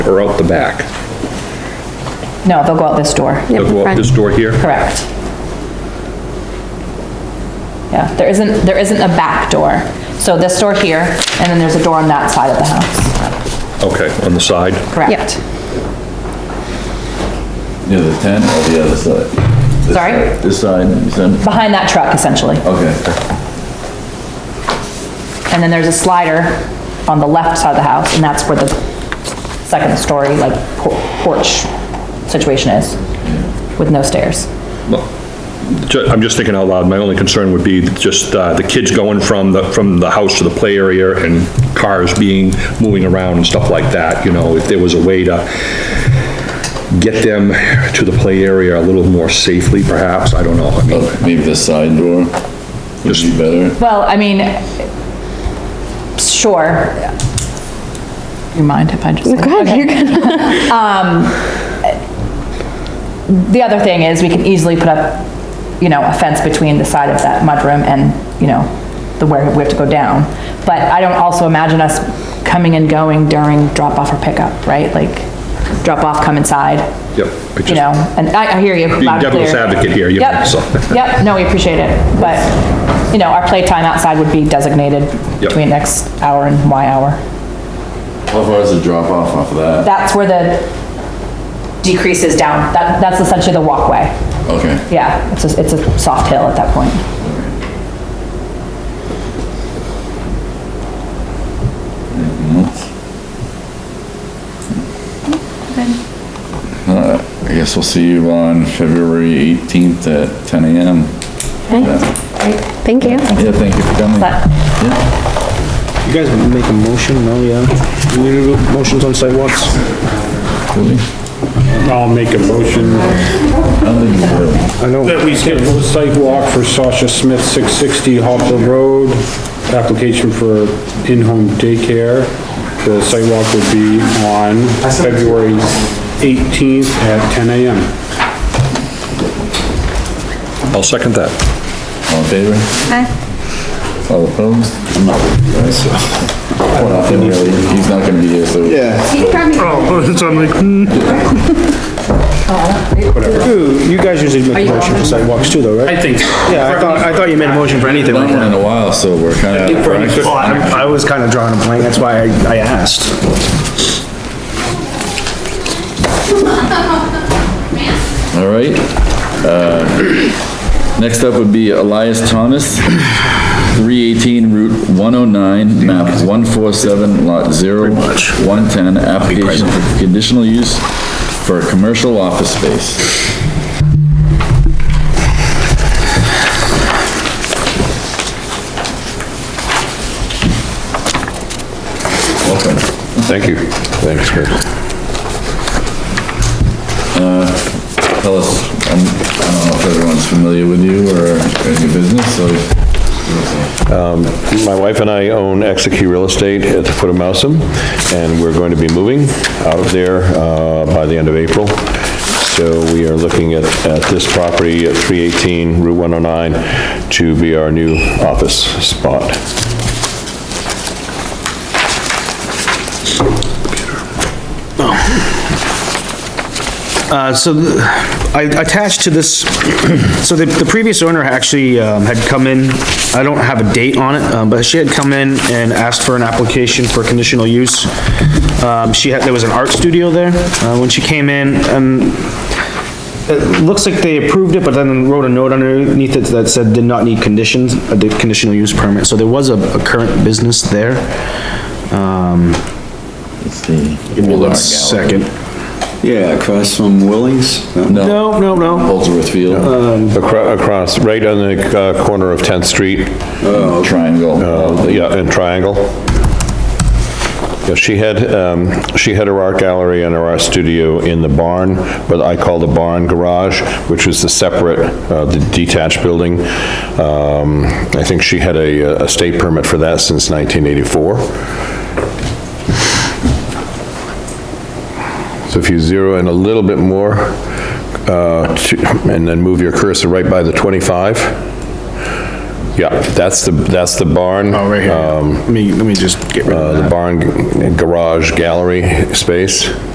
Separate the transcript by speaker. Speaker 1: or out the back?
Speaker 2: No, they'll go out this door.
Speaker 1: They'll go out this door here?
Speaker 2: Correct. Yeah, there isn't, there isn't a back door. So this door here, and then there's a door on that side of the house.
Speaker 1: Okay, on the side?
Speaker 2: Correct.
Speaker 3: Near the tent or the other side? This
Speaker 2: Sorry?
Speaker 3: side- This side, you said?
Speaker 2: Behind that truck essentially.
Speaker 3: Okay.
Speaker 2: And then there's a slider on the left side of the house, and that's where the second story, like por- porch situation is, with no stairs.
Speaker 1: Well, ju- I'm just thinking out loud, my only concern would be just uh, the kids going from the, from the house to the play area and cars being, moving around and stuff like that, you know, if there was a way to get them to the play area a little more safely perhaps, I don't know, I mean,
Speaker 3: Maybe the side door would be better.
Speaker 2: Well, I mean, sure. You mind if I just?
Speaker 4: Go ahead, you're
Speaker 2: good. The other thing is, we can easily put up, you know, a fence between the side of that mudroom and, you know, the where we have to go down. But I don't also imagine us coming and going during drop-off or pickup, right? Like, drop-off, come inside,
Speaker 1: yep. I
Speaker 2: you
Speaker 1: just-
Speaker 2: know, and I, I hear you.
Speaker 1: Being
Speaker 2: loud and
Speaker 1: devil's
Speaker 2: clear.
Speaker 1: advocate here, you know, so.
Speaker 2: Yep, yep, no, we appreciate it, but, you know, our playtime outside would be designated
Speaker 1: Yep.
Speaker 2: between X hour and Y hour.
Speaker 3: How far is the drop off off of that?
Speaker 2: That's where the decrease is down, that, that's essentially the walkway.
Speaker 3: Okay.
Speaker 2: Yeah, it's a, it's a soft hill at that point.
Speaker 3: Alright, I guess we'll see you on February 18th at 10 AM. Yeah,
Speaker 4: Thank you.
Speaker 3: Yeah, thank you for coming.
Speaker 2: But
Speaker 3: Yeah.
Speaker 5: You guys make a motion, no, yeah? Do we do motions on sidewalks?
Speaker 3: really.
Speaker 6: I'll make a motion
Speaker 3: I don't think you will.
Speaker 5: I know.
Speaker 6: that we schedule a site walk for Sasha Smith, 660 Hopper Road, application for in-home daycare. The site walk would be on February 18th at 10 a.m.
Speaker 1: I'll second that.
Speaker 3: All in favor? Aye. All opposed? No. Well, nothing really, he's not gonna be here, so. Yeah.
Speaker 5: Ooh, You guys usually make a motion for sidewalks too, though, right?
Speaker 7: I think, so.
Speaker 5: Yeah, I thought, I thought you made a motion for anything like
Speaker 3: Not one
Speaker 5: that.
Speaker 3: in a while, so we're kinda.
Speaker 5: Well, I I was kind of drawing a blank, that's why I, I asked.
Speaker 3: All right. Uh, Next up would be Elias Thomas, 318 Route 109, map 147, lot 0, 110, application for conditional use for a commercial office space. Welcome.
Speaker 1: Thank you. Thanks, Chris.
Speaker 3: Tell us, um, I don't know if everyone's familiar with you or in your business, so
Speaker 8: My wife and I own Exeki Real Estate at the foot of Mousom, and we're going to be moving out of there uh, by the end of April. So we are looking at, at this property at 318 Route 109 to be our new office spot.
Speaker 5: Uh, so th- I attached to this, so the, the previous owner actually um, had come in, I don't have a date on it, um, but she had come in and asked for an application for conditional use. Um, she had, there was an art studio there, uh, when she came in, um, it looks like they approved it, but then wrote a note underneath it that said did not need conditions, a di- conditional use permit, so there was a, a current business there. Um,
Speaker 3: it's the.
Speaker 5: give me one second.
Speaker 9: Yeah, across from Willie's. No,
Speaker 3: No,
Speaker 5: No, no, no,
Speaker 3: Holdsworth Field,
Speaker 8: Acro- Across, right on the uh, corner of 10th Street,
Speaker 5: Oh,
Speaker 3: triangle.
Speaker 8: uh, yeah, in Triangle. Yeah, she had, um, she had her art gallery and her art studio in the barn, what I call the barn garage, which was the separate, uh, the detached building. Um, I think she had a, a state permit for that since 1984. So if you zero in a little bit more, uh, to- and then move your cursor right by the 25. Yeah, that's the, that's the barn.
Speaker 5: oh, right here,
Speaker 8: Um,
Speaker 5: let me, let me just get rid of that.
Speaker 8: uh, the barn g- garage gallery space.